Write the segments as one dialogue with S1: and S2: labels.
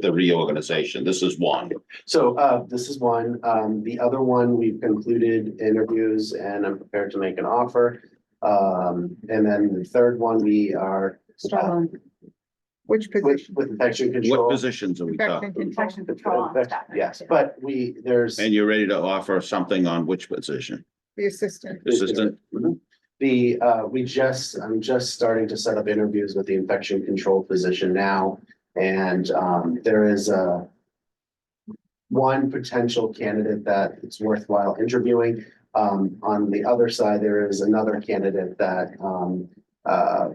S1: the reorganization. This is one.
S2: So uh, this is one. Um, the other one, we've concluded interviews and I'm prepared to make an offer. Um, and then the third one, we are
S3: Struggling.
S2: Uh,
S3: Which
S2: with
S3: position?
S2: with infection
S1: What
S2: control.
S1: positions are we talking?
S3: Infection control on staff.
S2: Infect- Yes, but we, there's
S1: And you're ready to offer something on which position?
S3: The assistant.
S1: Assistant?
S2: Mm-hmm. the, uh, we just, I'm just starting to set up interviews with the infection control physician now. And um, there is a one potential candidate that it's worthwhile interviewing. Um, on the other side, there is another candidate that um, uh,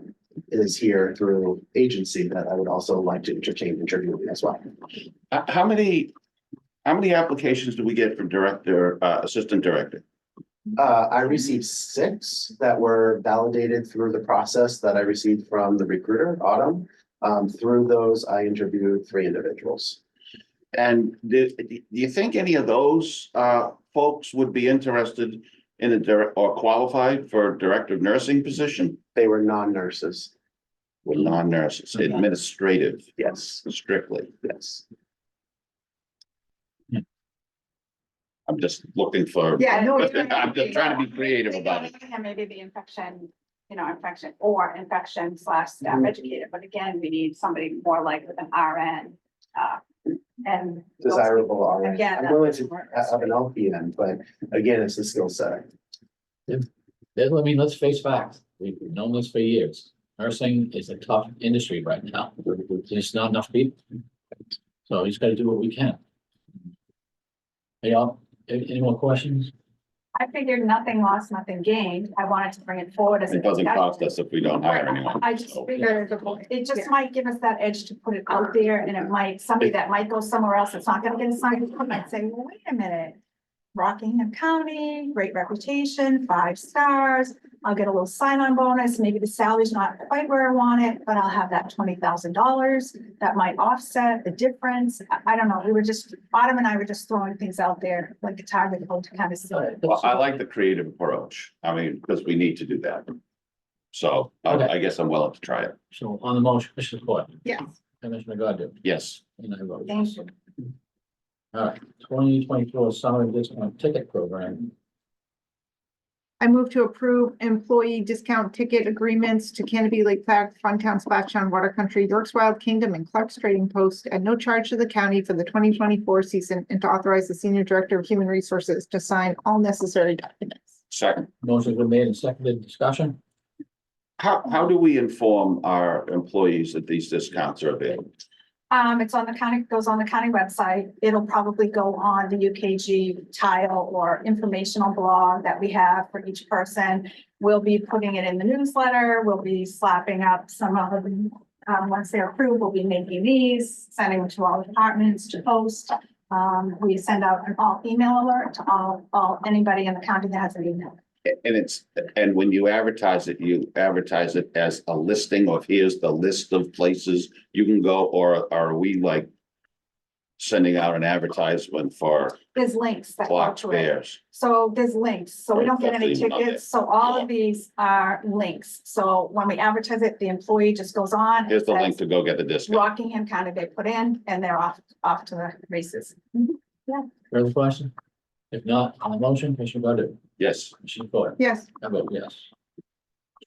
S2: is here through agency that I would also like to entertain interviewing as well.
S1: How, how many, how many applications do we get from director, uh, assistant director?
S2: Uh, I received six that were validated through the process that I received from the recruiter, Autumn. Um, through those, I interviewed three individuals.
S1: And do, do you think any of those, uh, folks would be interested in a direct, or qualified for director of nursing position?
S2: They were non-nurses.
S1: With non-nurses, administrative
S2: Yes,
S1: strictly.
S2: yes.
S1: I'm just looking for.
S3: Yeah, no. it's-
S1: I'm just trying to be creative about it.
S4: And maybe the infection, you know, infection or infection slash staff
S2: Mhm.
S4: educator, but again, we need somebody more like with an RN. uh, And. those-
S2: Desirable RN.
S4: Again.
S2: I'm
S4: that
S2: willing
S4: doesn't
S2: to
S4: work.
S2: have an LPN, but again, it's a skill set.
S5: Yeah, I mean, let's face facts. We've known this for years. Nursing is a tough industry right now. There's not enough people. So he's gotta do what we can. Hey, y'all, any, any more questions?
S4: I figured nothing lost, nothing gained. I wanted to bring it forward as. a
S1: It doesn't
S4: discussion.
S1: cost us if we don't hire anyone.
S4: I just
S1: so.
S4: figured it just might give us that edge to put it out there and it might, somebody that might go somewhere else, that's not gonna get assigned, might say, well, wait a minute. Rockingham County, great reputation, five stars, I'll get a little sign-on bonus, maybe the salary's not quite where I want it, but I'll have that twenty thousand dollars. That might offset the difference, I, I don't know, we were just, Autumn and I were just throwing things out there like a target, hope to kind of. see.
S1: Well, I like the creative approach. I mean, because we need to do that. So I, I guess I'm willing to try it.
S5: So on the motion, Commissioner Coyle,
S3: Yes.
S5: Commissioner Godu,
S1: Yes.
S5: and I vote. yes.
S4: Thank you.
S5: All right, twenty twenty-four summer discount ticket program.
S3: I move to approve employee discount ticket agreements to Canopy Lake Flag, Funtown, Splashdown, Water Country, York's Wild Kingdom, and Clark's Trading Post at no charge to the county for the twenty twenty-four season and to authorize the Senior Director of Human Resources to sign all necessary documents.
S1: Second,
S5: Motion's been made and seconded. Discussion?
S1: how, how do we inform our employees that these discounts are available?
S4: Um, it's on the county, goes on the county website. It'll probably go on the UKG tile or informational blog that we have for each person. We'll be putting it in the newsletter. We'll be slapping up some of them. Um, once they're approved, we'll be making these, sending them to all the departments to post. Um, we send out an all email alert to all, all, anybody in the county that has an email.
S1: And it's, and when you advertise it, you advertise it as a listing of here's the list of places you can go, or are we like sending out an advertisement for
S4: There's links that go
S1: Clark's
S4: to it.
S1: Bears?
S4: So there's links, so we don't get any
S1: Exactly, okay.
S4: tickets, so all of these are links, so when we advertise it, the employee just goes on. and
S1: Here's the link
S4: says,
S1: to go get the discount.
S4: Rockingham County they put in, and they're off, off to the races.
S5: Further question? If not, on the motion, Commissioner Godu,
S1: Yes.
S5: Commissioner Coyle,
S3: Yes,
S5: I vote yes.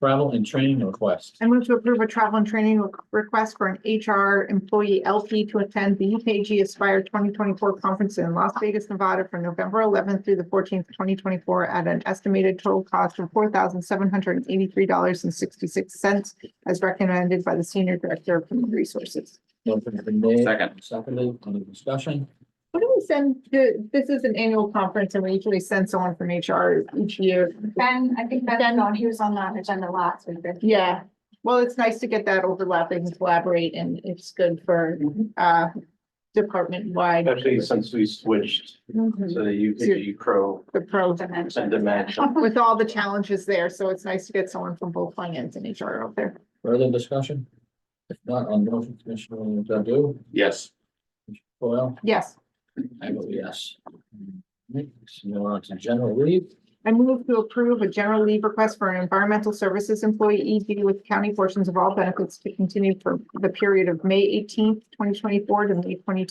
S5: Travel and training request.
S3: I move to approve a travel and training re- request for an HR employee LP to attend the UKG Aspire twenty twenty-four conference in Las Vegas, Nevada from November eleventh through the fourteenth, twenty twenty-four at an estimated total cost of four thousand seven hundred and eighty-three dollars and sixty-six cents as recommended by the Senior Director of Human Resources.
S5: Motion's been made.
S1: Second.
S5: and Seconded, under discussion.
S3: What do we send, to- this is an annual conference and we usually send someone from HR each year.
S4: Ben, I think Ben,
S3: Ben-
S4: no, he was on that agenda last week. but-
S3: Yeah, well, it's nice to get that overlapping and collaborate and it's good for uh department wide.
S6: Especially since we switched to
S3: The
S6: the UKG Crow
S3: pro,
S4: Dimension.
S6: and Dimension.
S3: with all the challenges there, so it's nice to get someone from both finance and HR out there.
S5: Further discussion? If not, on the motion, Commissioner Godu,
S1: Yes.
S5: Coyle,
S3: Yes,
S5: I vote yes. Next, we're on to general leave.
S3: I move to approve a general leave request for an environmental services employee ED with county portions of all benefits to continue for the period of May eighteenth, twenty twenty-four to May twenty